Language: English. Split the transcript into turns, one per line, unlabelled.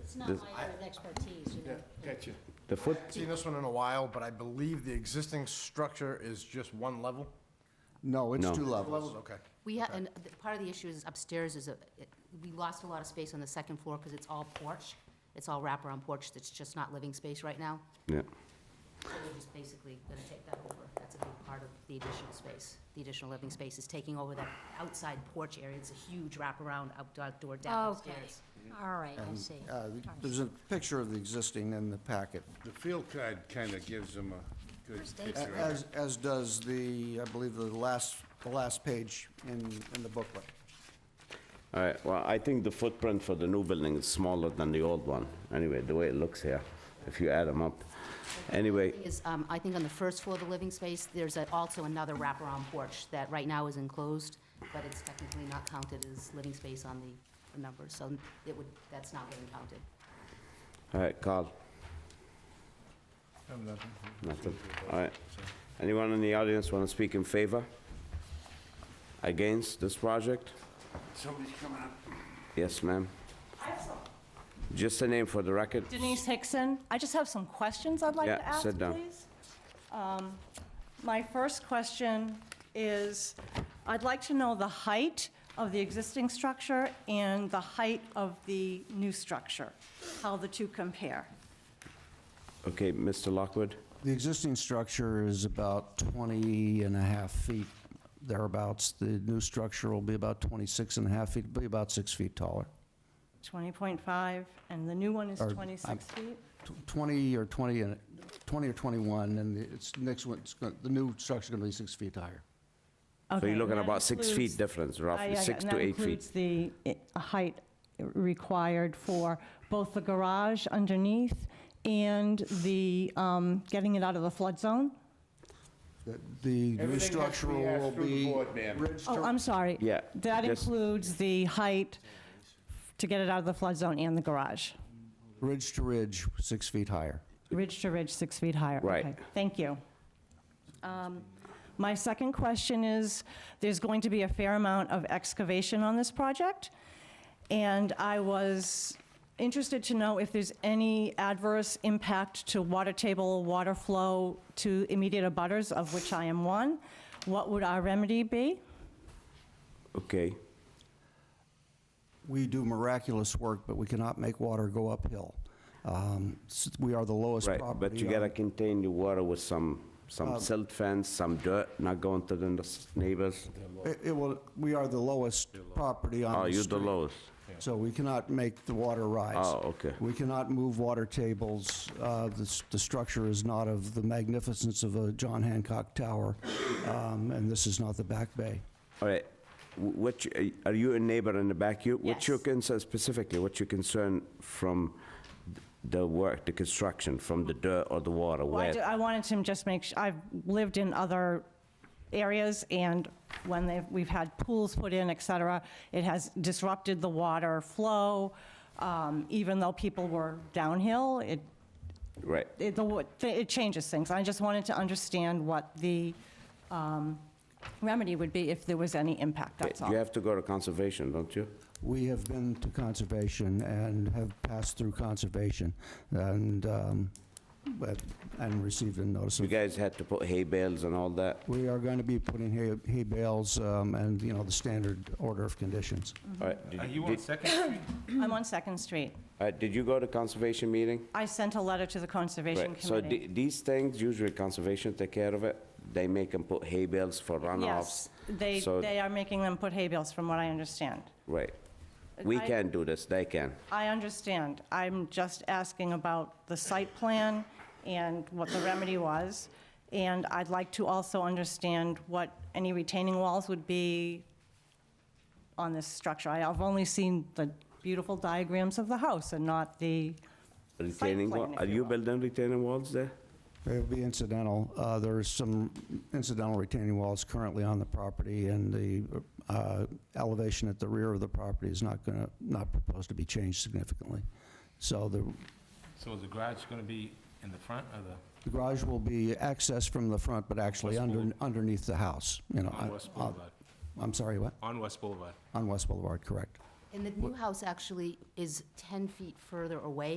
It's not
This-
my area of expertise, you
Yeah,
know.
gotcha.
The foot,
Seen this one in a while, but I believe the existing structure is just one level?
No, it's
No.
two
Levels,
levels.
okay.
We had, and th- part of the issue is upstairs is, a- it- we lost a lot of space on the second floor because it's all porch. It's all wraparound porch that's just not living space right now.
yeah.
So we're just basically gonna take that over. That's a big part of the additional space. The additional living space is taking over that outside porch area. It's a huge wraparound outdoor deck
Okay,
upstairs.
all right, I see.
Uh, There's a picture of the existing in the packet,
The field card kind of gives them a good
a-
picture of it.
as, as does the, I believe, the last, the last page in, in the booklet.
All right, well, I think the footprint for the new building is smaller than the old one. Anyway, the way it looks here, if you add them up. Anyway,
Is, um, I think on the first floor of the living space, there's a- also another wraparound porch that right now is enclosed, but it's technically not counted as living space on the the numbers, so it would, that's not getting counted.
all right, Carl, nothing. All right. Anyone in the audience want to speak in favor? Against this project?
Somebody's coming up.
Yes, ma'am. Just a name for the record.
Denise Hickson. I just have some questions I'd like
Yeah,
to ask,
sit down.
please. Um, My first question is, I'd like to know the height of the existing structure and the height of the new structure, how the two compare.
Okay, Mr. Lockwood?
The existing structure is about 20 and a half feet thereabouts. The new structure will be about 26 and a half feet, be about six feet taller.
20.5, and the new one is
Or,
26 feet?
Tw- 20 or 20, and 20 or 21, and the- it's, next one, it's gonna- the new structure's going to be six feet higher.
So
Okay,
you're
and
looking
that
about six
includes-
feet difference,
I- I-
roughly, six to eight feet.
And that includes the i- height required for both the garage underneath and the, um, getting it out of the flood zone?
The- The new
Everything has to
structure
be asked
will
through the
be
board, ma'am.
ridge to
Oh, I'm sorry.
Yeah,
That
just-
includes the height to get it out of the flood zone and the garage,
Ridge to ridge, six feet higher.
ridge to ridge, six feet higher.
Right.
Okay, Thank you. Um, My second question is, there's going to be a fair amount of excavation on this project, and I was interested to know if there's any adverse impact to water table, water flow to immediate abutters, of which I am one. What would our remedy be?
Okay,
We do miraculous work, but we cannot make water go uphill. Um, s- We are the lowest
right,
property.
but you
on-
um,
gotta contain your water with some, some silt fence, some dirt, not going to the n- neighbors.
It it will, we are the lowest property on the
Oh, you're the
street,
lowest.
So we cannot make the water rise.
Oh, okay.
We cannot move water tables. Uh, The s- the structure is not of the magnificence of a John Hancock Tower, um, and this is not the Back Bay.
All right, wh- what, you- are you a neighbor in the back? You, what's your
Yes.
concern specifically, what's your concern from th- the work, the construction, from the dirt or the water?
Well, I
Where-
ju- I wanted to just make, su- I've lived in other areas, and when they've, we've had pools put in, et cetera, it has disrupted the water flow, um, even though people were downhill, it,
Right,
it, the wa- th- it changes things. I just wanted to understand what the um, remedy would be if there was any impact, that's all.
you have to go to conservation, don't you?
We have been to conservation and have passed through conservation and, um, but- and received a notice
You
of
guys had to put hay bales and all that?
We are going to be putting hay- hay bales um, and, you know, the standard order of conditions.
Mm-hmm.
All right, did
Are
you,
you on
did-
Second Street?
I'm on Second Street.
all right, did you go to conservation meeting?
I sent a letter to the Conservation
Right, so
Committee.
the- these things, usually conservation take care of it. They make them put hay bales for runoffs.
Yes, they,
So-
they are making them put hay bales, from what I understand.
Right. We
I-
can do this, they can.
I understand. I'm just asking about the site plan and what the remedy was. And I'd like to also understand what any retaining walls would be on this structure. I- I've only seen the beautiful diagrams of the house and not the,
Retaining
plan,
wall,
if
are
you
you
will.
building retaining walls there?
It'll be incidental. Uh, There is some incidental retaining walls currently on the property, and the uh, elevation at the rear of the property is not going to, not proposed to be changed significantly. So the
So is the garage going to be in the front or the,
the garage will be accessed from the front, but actually under underneath the house, you know.
on
I-
West
uh,
Boulevard?
I'm sorry, what?
On West Boulevard?
On West Boulevard, correct.
And the new house actually is 10 feet further away